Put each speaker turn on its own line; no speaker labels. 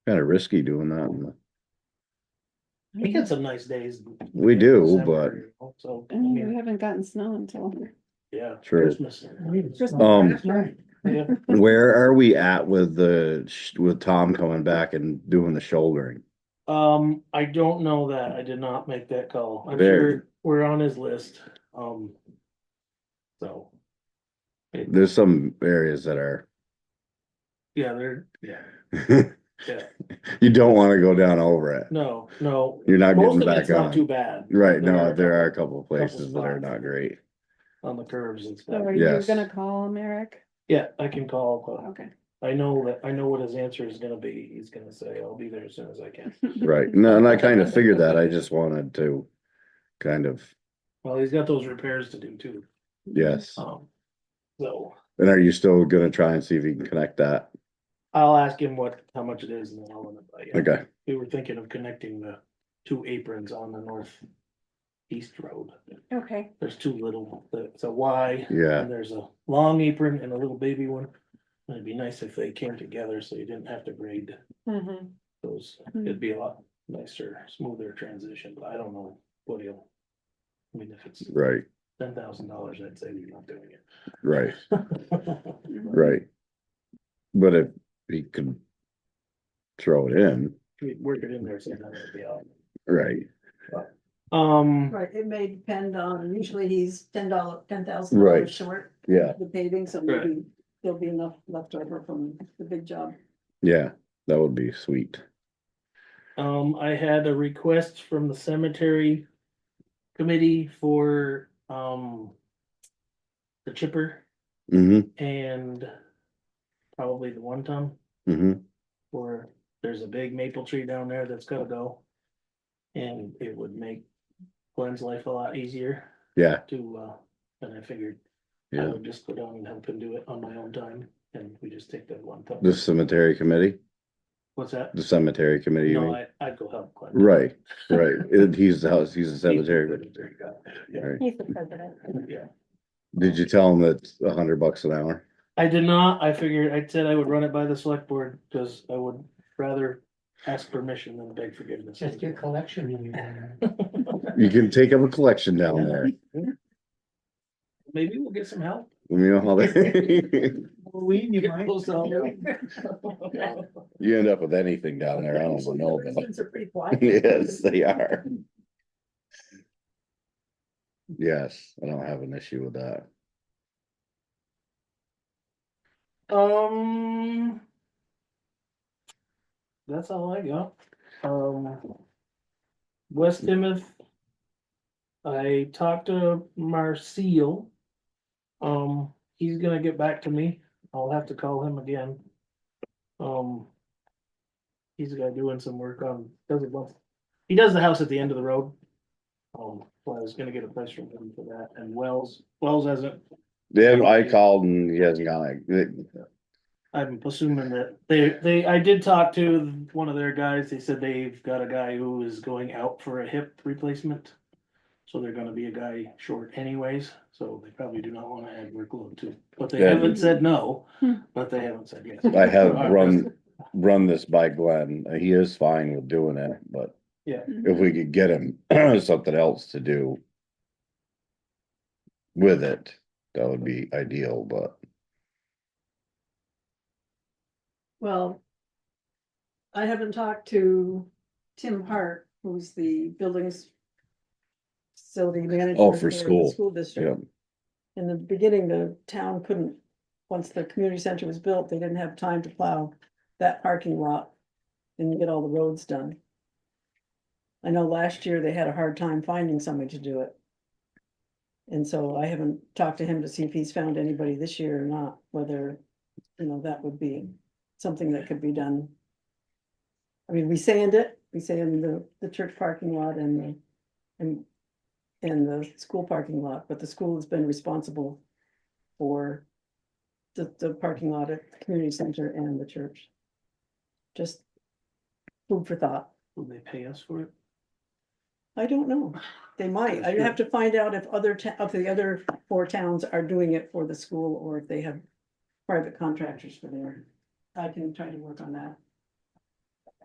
Kinda risky doing that. in the-
We get some nice days.
We
in
do, but
December, So, I
I mean,
Mm-hmm.
we
mean,
haven't gotten snow until.
yeah.
True.
Christmas.
Um,
Yeah.
where are we at with the, sh- with Tom coming back and doing the shouldering?
Um, I don't know that. I did not make that call. I'm
There.
sure we're on his list, um. So,
There's some areas that are,
yeah, there, yeah, yeah,
you don't wanna go down over it.
no, no.
You're not
Most
getting
of it's
back
not too
on.
bad.
Right,
There
no,
are a
there are a
couple-
couple places that are
spots.
not great.
On the curves and
So
stuff.
are you
Yes.
gonna call him, Eric?
Yeah, I can call,
Okay.
but I know that, I know what his answer is gonna be. He's gonna say, I'll be there as soon as I can.
Right, no, and I kinda figured that, I just wanted to kind of,
Well, he's got those repairs to do too,
yes.
um. So,
And are you still gonna try and see if you can connect that?
I'll ask him what, how much it is and then I'll. let him know.
Okay,
We were thinking of connecting the two aprons on the north. East road.
Okay,
There's two little, it's a Y
yeah,
and there's a long apron and a little baby one. And It'd be nice if they came together so you didn't have to grade
mm-hmm,
those. It'd be a lot nicer, smoother transition, but I don't know what he'll. I mean, if it's
right,
ten thousand dollars, I'd say you're not doing it.
right,
Mm-hmm.
right. But if he could throw it in,
We Work it in there sometime, it'd be all.
right,
Um,
Right, it may depend on, usually he's ten dollar, ten thousand
Right.
dollars short,
yeah,
the paving, so
Right.
maybe there'll be enough left over from the big job.
yeah, that would be sweet.
Um, I had a request from the cemetery committee for, um, the chipper
Mm-hmm,
and probably the one ton,
mm-hmm,
or there's a big maple tree down there that's gotta go. And it would make Glenn's life a lot easier
yeah,
to, uh, and I figured I
yeah.
would just go down and help him do it on my own time, and we just take that one ton.
The cemetery committee,
What's that?
the cemetery committee, you
No,
mean?
I, I'd go help Glenn.
Right, right, It- he's the house, he's the cemetery.
Yeah,
Right.
he's the president.
yeah.
Did you tell him that's a hundred bucks an hour?
I did not, I figured, I said I would run it by the select board, cause I would rather ask permission than beg forgiveness.
Just do collection. when you're done.
You can take up a collection down there,
Maybe we'll get some help.
you know how they.
Lean, you
Get
might.
those out.
You end up with anything down there, I don't even know. but-
Reasons are pretty quiet.
Yes, they are. Yes, I don't have an issue with that.
Um. That's all I got, um. West Timoth. I talked to Marcel. Um, he's gonna get back to me, I'll have to call him again. Um. He's got doing some work on, doesn't want, he does the house at the end of the road. Um, so I was gonna get a price from him for that, and Wells, Wells hasn't
Then I called and he hasn't gone, like,
I'm assuming that they, they, I did talk to one of their guys, they said they've got a guy who is going out for a hip replacement. So they're gonna be a guy short anyways, so they probably do not wanna add workload to, but they
Yeah.
haven't said no,
Hmm.
but they haven't said yes.
I have
Alright,
run, run this by Glenn, he is fine with doing it, but.
Yeah.
Mm-hmm.
If we could get him something else to do. With it, that would be ideal, but
Well. I haven't talked to Tim Hart, who's the buildings. Facility manager.
Oh, for
the
school.
School
yeah,
district. In the beginning, the town couldn't, once the community center was built, they didn't have time to plow that parking lot and get all the roads done. I know last year they had a hard time finding somebody to do it. And so I haven't talked to him to see if he's found anybody this year or not, whether, you know, that would be something that could be done. I mean, we sand it, we sand the, the church parking lot and the, and and the school parking lot, but the school has been responsible for the, the parking lot at the community center and the church. Just food for thought.
Will they pay us for it?
I don't know. They might.
That's
I'd
true.
have to find out if other, ta- if the other four towns are doing it for the school or if they have private contractors for there. I can try to work on that.